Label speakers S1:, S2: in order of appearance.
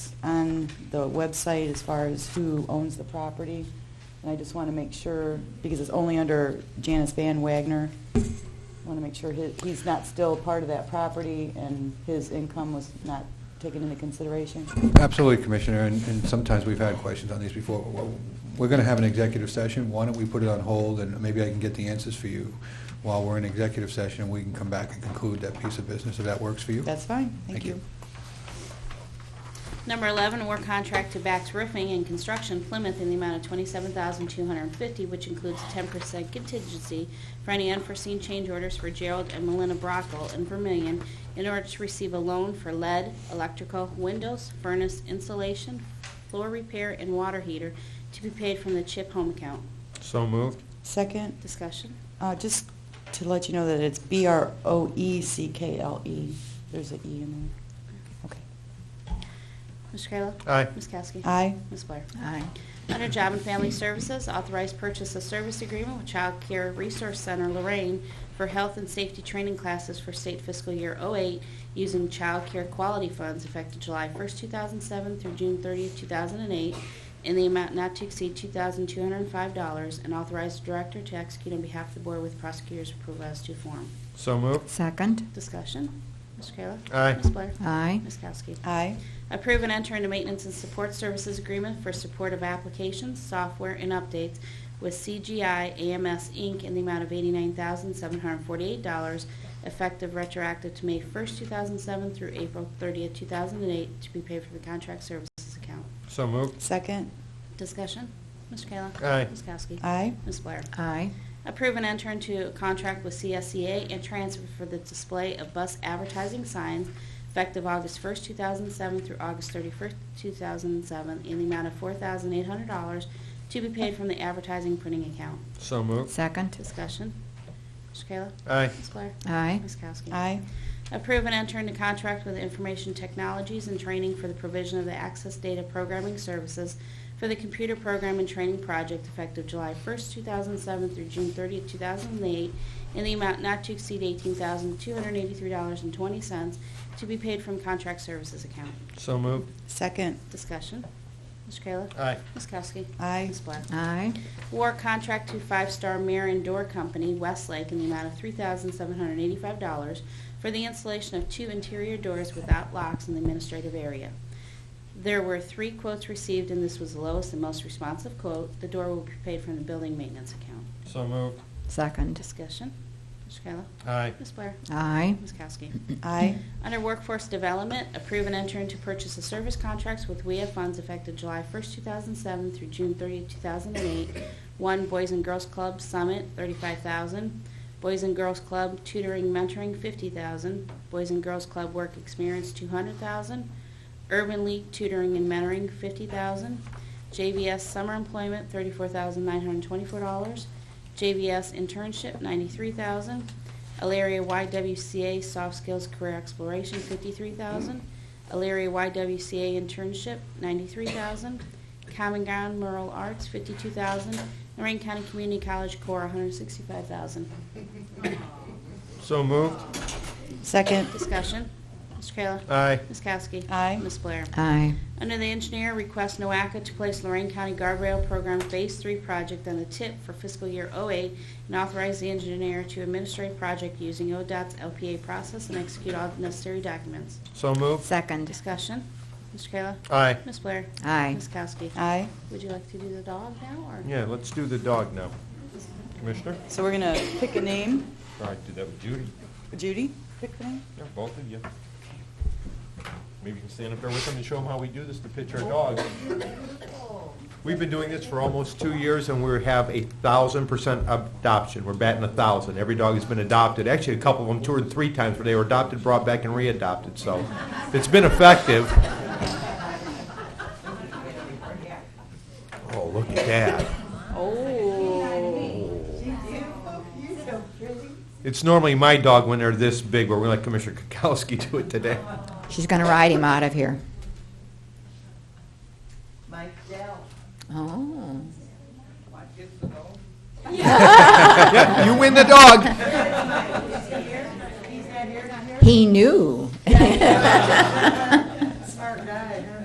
S1: on the website as far as who owns the property. And I just want to make sure, because it's only under Janice Van Wagner, I want to make sure his- he's not still part of that property and his income was not taken into consideration.
S2: Absolutely, Commissioner, and and sometimes we've had questions on these before. Well, We're going to have an executive session, why don't we put it on hold, and maybe I can get the answers for you while we're in executive session, and we can come back and conclude that piece of business, if that works for you?
S1: That's fine, thank
S2: Thank you.
S1: you.
S3: Number 11, award contract to Bax Roofing and Construction Plymouth in the amount of 27250 which includes a 10% contingency for any unforeseen change orders for Gerald and Melina Brockle in Vermillion in order to receive a loan for lead, electrical, windows, furnace insulation, floor repair, and water heater to be paid from the CHIP home account.
S4: So moved.
S1: Second,
S3: Discussion?
S1: uh, just to let you know that it's E B-R-O-E-C-K-L-E. There's an E in there. Okay.
S3: Mr. Kayla?
S4: Aye.
S3: Ms. Kowski?
S1: Aye.
S3: Ms. Blair?
S5: Aye.
S3: Under Job and Family Services, authorized purchase of service agreement with Child Care Resource Center Lorraine for health and safety training classes for state fiscal year '08 using child care quality funds effective July 1st, 2007 through June 30th, 2008, in the amount not to exceed $2,205, and authorized director to execute on behalf of the board with prosecutor's approval as to form.
S4: So moved.
S5: Second.
S3: Discussion? Mr. Kayla?
S4: Aye.
S3: Ms. Blair?
S5: Aye.
S3: Ms. Kowski?
S1: Aye.
S3: Approve and enter into maintenance and support services agreement for support of applications, software, and updates with CGI AMS Inc. in the amount of $89,748, effective retroactive to May 1st, 2007 through April 30th, 2008, to be paid from the contract services account.
S4: So moved.
S1: Second,
S3: Discussion? Mr. Kayla?
S4: Aye.
S3: Ms. Kowski?
S1: aye.
S3: Ms. Blair?
S5: Aye.
S3: Approve and enter into a contract with CSEA and transfer for the display of bus advertising signs effective August 1st, 2007 through August 31st, 2007, in the amount of $4,800 to be paid from the advertising printing account.
S4: So moved.
S5: Second.
S3: Discussion. Mr. Kayla?
S4: Aye.
S3: Ms. Blair?
S5: Aye.
S3: Ms. Kowski?
S1: Aye.
S3: Approve and enter into contract with Information Technologies and Training for the provision of the Access Data Programming Services for the Computer Program and Training Project effective July 1st, 2007 through June 30th, 2008, in the amount not to exceed $18,283.20 to be paid from contract services account.
S4: So moved.
S1: Second,
S3: Discussion. Mr. Kayla?
S4: Aye.
S3: Ms. Kowski?
S1: Aye.
S3: Ms. Blair?
S5: Aye.
S3: War contract to Five Star Mirror and Door Company, Westlake, in the amount of $3,785 for the installation of two interior doors without locks in the administrative area. There were three quotes received, and this was the lowest and most responsive quote. The door will be paid from the building maintenance account.
S4: So moved.
S5: Second.
S3: Discussion. Mr. Kayla?
S4: Aye.
S3: Ms. Blair?
S5: Aye.
S3: Ms. Kowski?
S1: aye.
S3: Under Workforce Development, approve and enter into purchase of service contracts with WEA funds effective July 1st, 2007 through June 30th, 2008. One, Boys and Girls Club Summit, 35000 Boys and Girls Club Tutoring Mentoring, 50000 Boys and Girls Club Work Experience, 200000 Urban League Tutoring and Mentoring, 50000 JVS Summer Employment, $34,924. JVS Internship, 93000 Alaria YWCA Soft Skills Career Exploration, fifty-three thousand. Alaria YWCA Internship, ninety-three thousand. Common Ground Rural Arts, fifty-two thousand. Lorraine County Community College Corps, one hundred sixty-five thousand.
S4: So moved.
S1: Second,
S3: Discussion. Mr. Kayla.
S4: Aye.
S3: Ms. Kowski.
S1: Aye.
S3: Ms. Blair.
S5: Aye.
S3: Under the engineer, request NOACA to place Lorraine County Guardrail Program Phase 3 project on the tip for fiscal year '08 and authorize the engineer to administer a project using ODOT's LPA process and execute all necessary documents.
S4: So moved.
S5: Second.
S3: Discussion. Mr. Kayla?
S4: Aye.
S3: Ms. Blair?
S5: Aye.
S3: Ms. Kowski?
S1: aye.
S3: Would you like to do the dog now, or?
S4: Yeah, let's do the dog now. Commissioner?
S1: So we're gonna pick a name.
S4: All right, do that with Judy.
S1: Judy, pick the name.
S4: Yeah, both of you. Maybe you can stand up there with them and show them how we do this to pitch our dogs. We've been doing this for almost two years, and we have a thousand percent adoption. We're batting a thousand. Every dog has been adopted. Actually, a couple of them, two or three times, where they were adopted, brought back, and readopted. So it's been effective. Oh, look at that.
S1: Oh.
S4: It's normally my dog when they're this big, but we're going to let Commissioner Kukowski do it today.
S5: She's going to ride him out of here.
S6: Mike Dell,
S5: Oh.
S6: watch this ago.
S4: You win the dog.
S5: He knew.